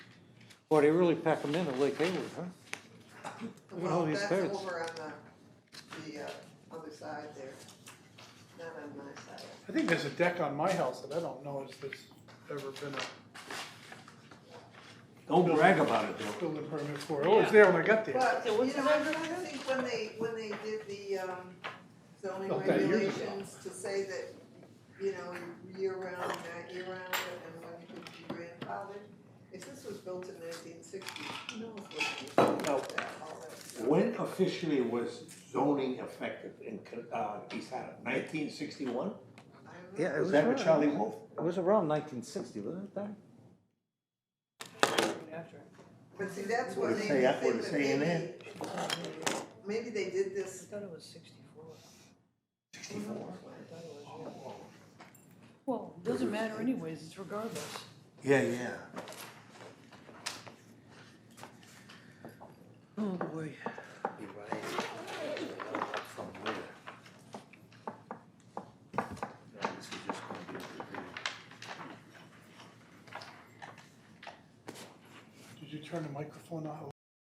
Boy, they really pack them in at Lake Hayward, huh? Look at all Well, these that's birds. over on the, the, uh, other side there, not on my side. I think there's a deck on my house that I don't know if there's ever been a Don't brag about it though. building permit for. Oh, it was there when I got there. But, So what's you know, the I number? think when they, when they did the, um, zoning About that years ago. regulations to say that, you know, year round, not year round, and when you could be grandfathered, if this was built in nineteen sixty, who knows what it was about that, all that stuff. When officially was zoning effective in, uh, East Haddam? Nineteen I don't sixty-one? know. Yeah, it Was was that around, with Charlie Wolf? it was around nineteen sixty, wasn't it, Don? But see, that's What when it they say- think what it that say in maybe, maybe they did this. thought it was sixty-four. Sixty-four? I thought it was, yeah. Well, it doesn't matter anyways, it's regardless. Yeah, yeah. Oh, boy. Be right. From where? No, this is just gonna be a review. Did you turn the microphone off?